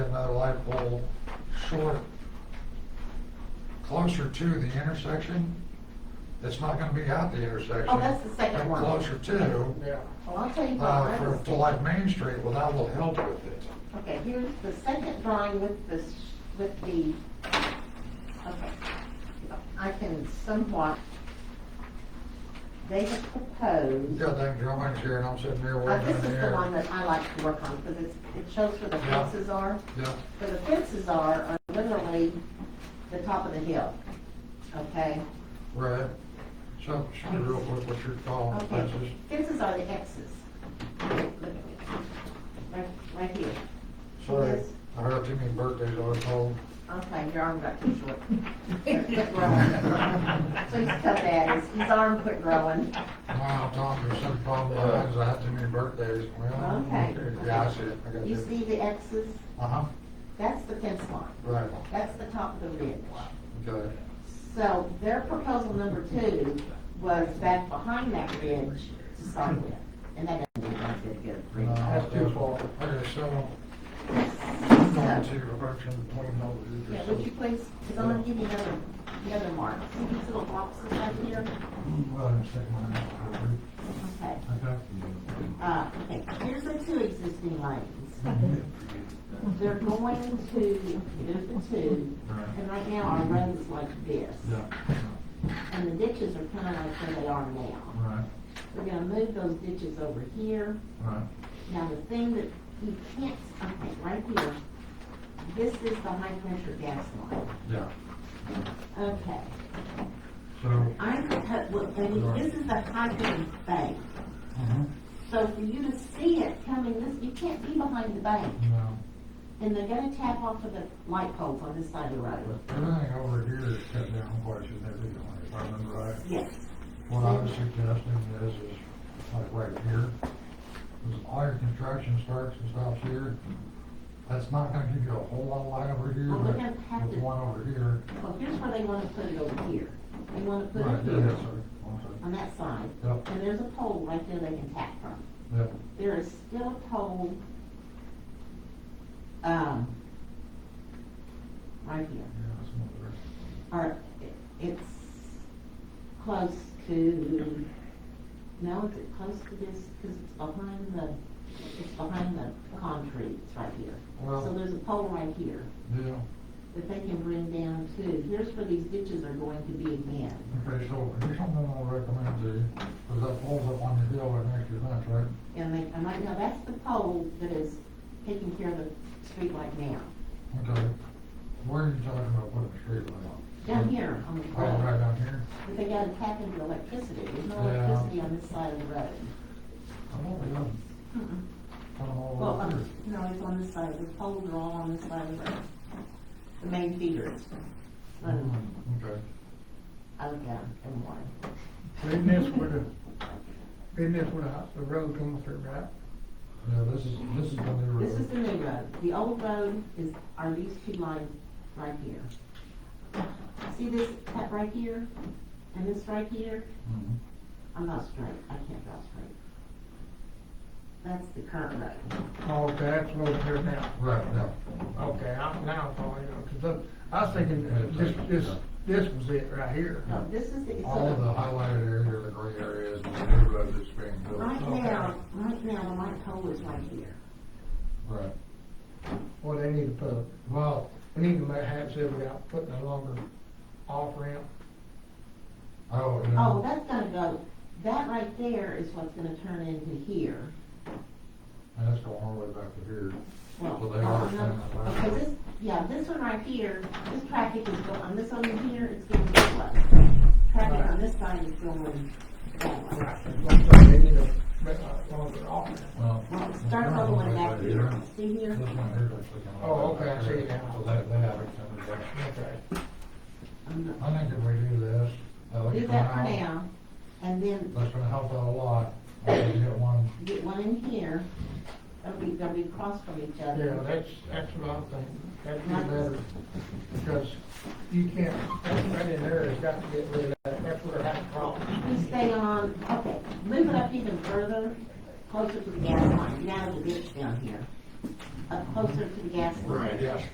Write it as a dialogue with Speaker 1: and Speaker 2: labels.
Speaker 1: that whole short, closer to the intersection, it's not gonna be at the intersection.
Speaker 2: Oh, that's the second
Speaker 1: but
Speaker 2: one.
Speaker 1: Closer to,
Speaker 3: Yeah.
Speaker 2: Well, Oh, I'll tell you what,
Speaker 1: uh, for,
Speaker 2: I
Speaker 1: to
Speaker 2: was,
Speaker 1: like Main Street, well, that will help with it.
Speaker 2: okay, here's the second drawing with the, s- with the, okay. I can somewhat, they have proposed,
Speaker 1: Yeah, then Joanne's here and I'm sitting here
Speaker 2: uh,
Speaker 1: waiting
Speaker 2: this
Speaker 1: in
Speaker 2: is
Speaker 1: the
Speaker 2: the
Speaker 1: air.
Speaker 2: one that I like to work on, because it's, it shows where the
Speaker 1: Yeah.
Speaker 2: fences are.
Speaker 1: Yeah,
Speaker 2: Where the fences are, are literally the top of the hill, okay?
Speaker 1: right. So, show me real quick what you're calling
Speaker 2: Okay,
Speaker 1: Oh, fences.
Speaker 2: fences are the X's. Look at me. Right, right here.
Speaker 1: Sorry,
Speaker 2: Yes.
Speaker 1: I heard too many birthdays, I was told.
Speaker 2: Okay, your arm got too short. It quit growing. Please cut that, his, his arm quit growing.
Speaker 1: Wow, Tom, there's some problem, I had- I had too many birthdays. Well,
Speaker 2: Okay.
Speaker 1: Yeah, I see it, I got
Speaker 2: You see the X's?
Speaker 1: Uh-huh,
Speaker 2: That's the fence line.
Speaker 1: right,
Speaker 2: That's the top of the ridge.
Speaker 1: okay.
Speaker 2: So their proposal number two was back behind that ridge to start with. And that doesn't look like a good
Speaker 1: Uh,
Speaker 2: ridge.
Speaker 3: That's too far.
Speaker 1: Okay, so, I'm going
Speaker 2: So,
Speaker 1: to direction point over
Speaker 2: yeah,
Speaker 1: here.
Speaker 2: would you please, because I'm gonna give you another, the other mark. See these little boxes right here?
Speaker 1: Well, I'm taking my hand.
Speaker 2: Okay.
Speaker 1: Okay.
Speaker 2: Uh, okay, here's the two existing lanes. They're going to move the two, and right now our road's like this.
Speaker 1: Yeah,
Speaker 2: And the ditches are kind of like where they are now.
Speaker 1: right,
Speaker 2: We're gonna move those ditches over here.
Speaker 1: right,
Speaker 2: Now, the thing that you can't, okay, right here, this is the high pressure gas line.
Speaker 1: yeah.
Speaker 2: Okay,
Speaker 1: So,
Speaker 2: I'm, propo- well, I mean, this is the high pressure bank. Uh-huh.
Speaker 1: mhm,
Speaker 2: So for you to see it coming this, you can't be behind the bank.
Speaker 1: no,
Speaker 2: And they're gonna tap off of the light poles on this side of the road.
Speaker 1: but everything over here is cut down quite significantly, if I remember right.
Speaker 2: Yes.
Speaker 1: What I was suggesting is, is like right here, is all your construction starts and stops here. That's not gonna give you a whole lot of light over here,
Speaker 2: Well, we're
Speaker 1: but
Speaker 2: gonna have
Speaker 1: with
Speaker 2: to-
Speaker 1: one over here.
Speaker 2: Well, here's where they wanna put it over here. They wanna put
Speaker 1: Right,
Speaker 2: it
Speaker 1: yeah, yeah,
Speaker 2: here,
Speaker 1: sorry, I'm sorry.
Speaker 2: on that side.
Speaker 1: Yep.
Speaker 2: And there's a pole right there they can tap from.
Speaker 1: Yep,
Speaker 2: There is still a pole, um, right
Speaker 1: yeah,
Speaker 2: here.
Speaker 1: that's not very-
Speaker 2: Or, it- it's close to, no, is it close to this, cause it's behind the, it's behind the concrete, it's right here.
Speaker 1: Well-
Speaker 2: So there's a pole right here.
Speaker 1: Yeah,
Speaker 2: that they can bring down too. Here's where these ditches are going to be again.
Speaker 1: okay, so here's something I'll recommend to you, because that pole's up on the hill right next to your fence, right?
Speaker 2: And they, and right now, that's the pole that is taking care of the street right now.
Speaker 1: Okay, where are you talking about putting the street light on?
Speaker 2: Down here on the
Speaker 1: Oh, right
Speaker 2: road.
Speaker 1: down here?
Speaker 2: But they gotta tap into electricity. There's no
Speaker 1: Yeah.
Speaker 2: electricity on this side of the road.
Speaker 1: I'm over here,
Speaker 2: Mm-mm.
Speaker 1: I'm all
Speaker 2: Well,
Speaker 1: over here.
Speaker 2: um, no, it's on this side. The poles are all on this side of the road. The main feeders. Um,
Speaker 1: Mm, Okay.
Speaker 2: Oh, yeah, and one.
Speaker 3: Isn't this where the, isn't this where the- the road comes through, right?
Speaker 1: Yeah, this is, this is the new road.
Speaker 2: This is the new road. The old road is, are these two lines right here. See this cut right here and this right here?
Speaker 1: Mhm.
Speaker 2: I'm not straight. I can't draw straight. That's the current road.
Speaker 3: Oh, okay, that's over here now.
Speaker 1: Right, yeah.
Speaker 3: Okay, I'm now following you, because look, I was thinking that this, this, this was it right here.
Speaker 2: No, this is the, it's
Speaker 1: All of the
Speaker 2: a,
Speaker 1: highlighted area, the gray area is the new road that's being built.
Speaker 2: right
Speaker 3: Okay.
Speaker 2: now, right now, the light pole is right here.
Speaker 1: Right.
Speaker 3: Well, they need to put, well, we need to make, have, see if we got putting a longer off ramp.
Speaker 1: Oh, yeah.
Speaker 2: Oh, that's gonna go, that right there is what's gonna turn into here.
Speaker 1: And that's going all the way back to here.
Speaker 2: Well,
Speaker 1: Well, they are
Speaker 2: uh, no,
Speaker 1: standing alone.
Speaker 2: Okay, this, yeah, this one right here, this traffic is going, on this one in here, it's going this way. Traffic on this side is going that way.
Speaker 3: Right, that's why They need to make a longer off ramp.
Speaker 1: Well,
Speaker 2: Well, it starts all the way back here, see
Speaker 1: This
Speaker 2: here?
Speaker 1: one here that's looking.
Speaker 3: Oh, okay, I see it now.
Speaker 1: So that, they have extended that.
Speaker 3: Okay.
Speaker 2: I'm not-
Speaker 1: I think if we do this. that'll
Speaker 2: Do that for
Speaker 1: come out.
Speaker 2: now, and then
Speaker 1: That's gonna help out a lot. I can get one,
Speaker 2: get one in here, that'll be, they'll be across from each
Speaker 3: Yeah,
Speaker 2: other.
Speaker 3: that's, that's what I'm thinking, that'd be better, because you can't, that right in there has got to get rid of that, that's where it has a problem.
Speaker 2: We stay on, okay, move it up even further, closer to the gas line, get out of the ditch down here. Up closer to the gas line.
Speaker 1: yes.